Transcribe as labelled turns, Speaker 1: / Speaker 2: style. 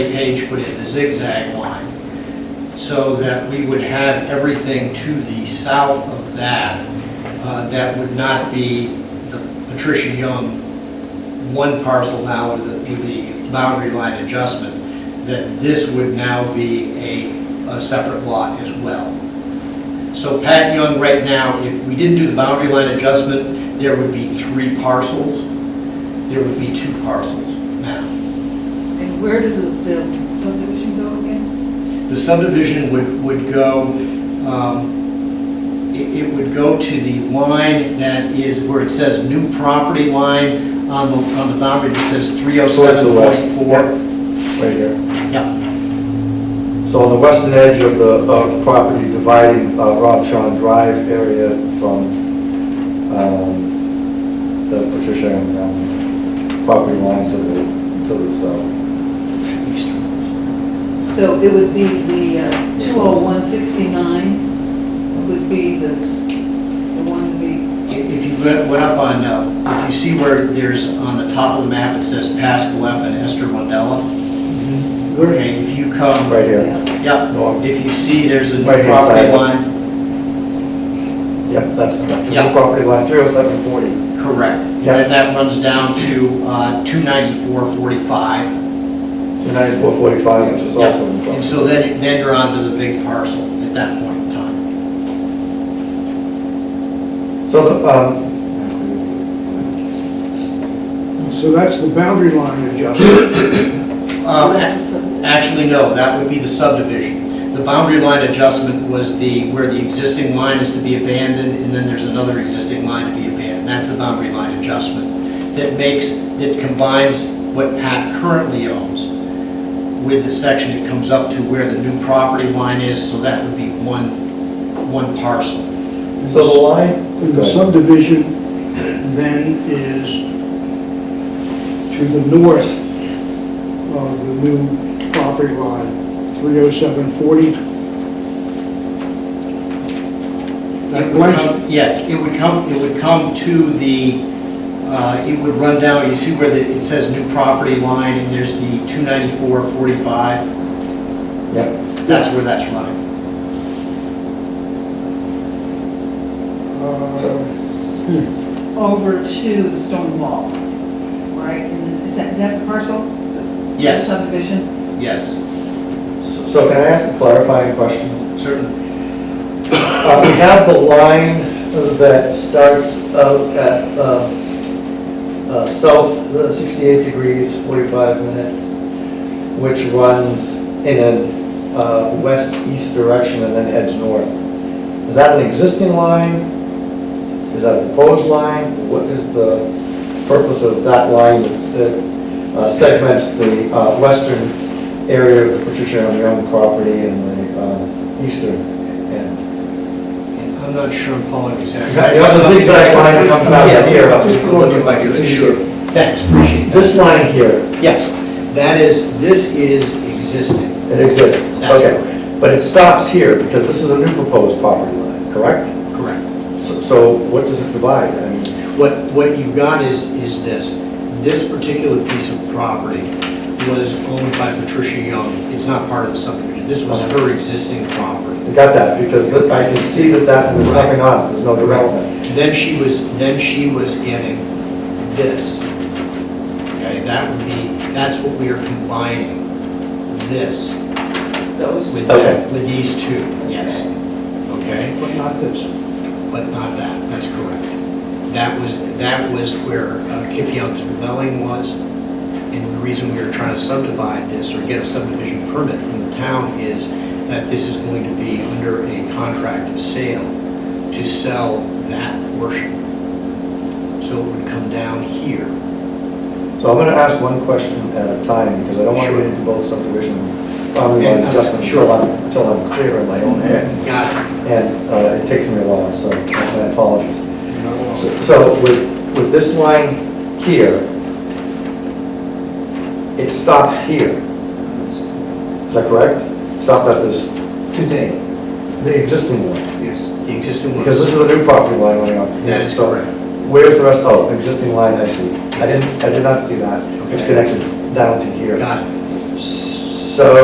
Speaker 1: page, but in the zigzag line, so that we would have everything to the south of that, uh, that would not be the Patricia Young one parcel now with the, with the boundary line adjustment, that this would now be a, a separate lot as well. So Pat Young, right now, if we didn't do the boundary line adjustment, there would be three parcels. There would be two parcels now.
Speaker 2: And where does the the subdivision go again?
Speaker 1: The subdivision would, would go, um, it, it would go to the line that is where it says new property line on the, on the boundary that says three oh
Speaker 3: Towards
Speaker 1: seven
Speaker 3: the west.
Speaker 1: point four.
Speaker 3: Right here.
Speaker 1: Yeah,
Speaker 3: So on the western edge of the uh, property dividing uh, Rob Shawn Drive area from um, the Patricia and um, property line to the, to the south.
Speaker 2: So it would be the uh, 20169 would be the, the one we,
Speaker 1: I- if you went went up on, uh, if you see where there's on the top of the map, it says Pascal F and Esther Mandela. Okay, if you come.
Speaker 3: Mm-hmm. Right here.
Speaker 2: yeah.
Speaker 1: Yep,
Speaker 3: No, I'm-
Speaker 1: if you see, there's a new
Speaker 3: Right-hand
Speaker 1: property
Speaker 3: side.
Speaker 1: line,
Speaker 3: Yep, that's the
Speaker 1: Yeah.
Speaker 3: the property line, 30740.
Speaker 1: correct. And
Speaker 3: Yeah.
Speaker 1: then that runs down to uh, 294.45.
Speaker 3: 9445, which is
Speaker 1: Yep.
Speaker 3: also in the
Speaker 1: And
Speaker 3: property.
Speaker 1: so then, then you're onto the big parcel at that point in time.
Speaker 3: So the, um,
Speaker 4: So that's the boundary line adjustment.
Speaker 1: Um,
Speaker 2: That's the subdivision.
Speaker 1: Actually, no, that would be the subdivision. The boundary line adjustment was the, where the existing line is to be abandoned, and then there's another existing line to be abandoned. That's the boundary line adjustment that makes, that combines what Pat currently owns with the section that comes up to where the new property line is, so that would be one, one parcel.
Speaker 3: so the line?
Speaker 4: And the subdivision then is to the north of the new property line, 30740.
Speaker 1: It
Speaker 4: That
Speaker 1: would
Speaker 4: blank,
Speaker 1: come- Yes, it would come, it would come to the, uh, it would run down, you see where the- it says new property line, and there's the 29445.
Speaker 3: Yep.
Speaker 1: That's where that's running.
Speaker 4: uh,
Speaker 2: over to the stone wall, right? And Is that, is that the parcel?
Speaker 1: Yes,
Speaker 2: Subdivision?
Speaker 1: yes,
Speaker 3: So can I ask a clarifying question?
Speaker 1: certainly.
Speaker 3: Uh, We have the line that starts out at uh, uh, south uh, 68 degrees, 45 minutes, which runs in a uh, west-east direction and then heads north. Is that an existing line? Is that a proposed line? What is the purpose of that line that uh, segments the uh, western area of the Patricia M. Young property and the uh, eastern end?
Speaker 1: I'm not sure I'm following exactly.
Speaker 3: Yeah, You have the zigzag line that comes out here.
Speaker 1: Yeah, just look if I could. Thanks, appreciate that.
Speaker 3: This line here,
Speaker 1: Yes, that is, this is existing.
Speaker 3: it exists,
Speaker 1: That's
Speaker 3: okay. But it stops here because this is a new proposed property line, correct?
Speaker 1: Correct.
Speaker 3: So- So what does it divide? I mean,
Speaker 1: What, what you've got is, is this. This particular piece of property was owned by Patricia Young. It's not part of the subdivision. This was her existing property.
Speaker 3: I got that because the- I can see that that, there's nothing on it, there's no development.
Speaker 1: Then she was, then she was getting this. Okay, that would be, that's what we are combining, this
Speaker 2: Those.
Speaker 1: with
Speaker 3: Okay.
Speaker 1: that, with these two, yes. Okay,
Speaker 4: but not this.
Speaker 1: but not that, that's correct. That was, that was where uh, Kip Young's dwelling was. And the reason we are trying to subdivide this or get a subdivision permit from the town is that this is going to be under a contract of sale to sell that portion. So it would come down here.
Speaker 3: So I'm gonna ask one question at a time because I don't want to
Speaker 1: Sure.
Speaker 3: get into both subdivision boundary line
Speaker 1: Yeah,
Speaker 3: adjustment
Speaker 1: sure.
Speaker 3: until I'm, until I'm clear in my own head.
Speaker 1: Got
Speaker 3: And uh, it takes me a while, so my apologies.
Speaker 1: it.
Speaker 3: So- So with, with this line here, it stopped here. Is that correct? Stopped at this,
Speaker 5: Today,
Speaker 3: the existing one,
Speaker 5: yes.
Speaker 1: The existing one.
Speaker 3: because this is a new property line going up. here.
Speaker 1: That is
Speaker 3: So
Speaker 1: correct.
Speaker 3: Where's the rest, oh, existing line, I see. I didn't, I did not see that. It's
Speaker 1: Okay.
Speaker 3: connected down to here.
Speaker 1: Got it.
Speaker 3: S- So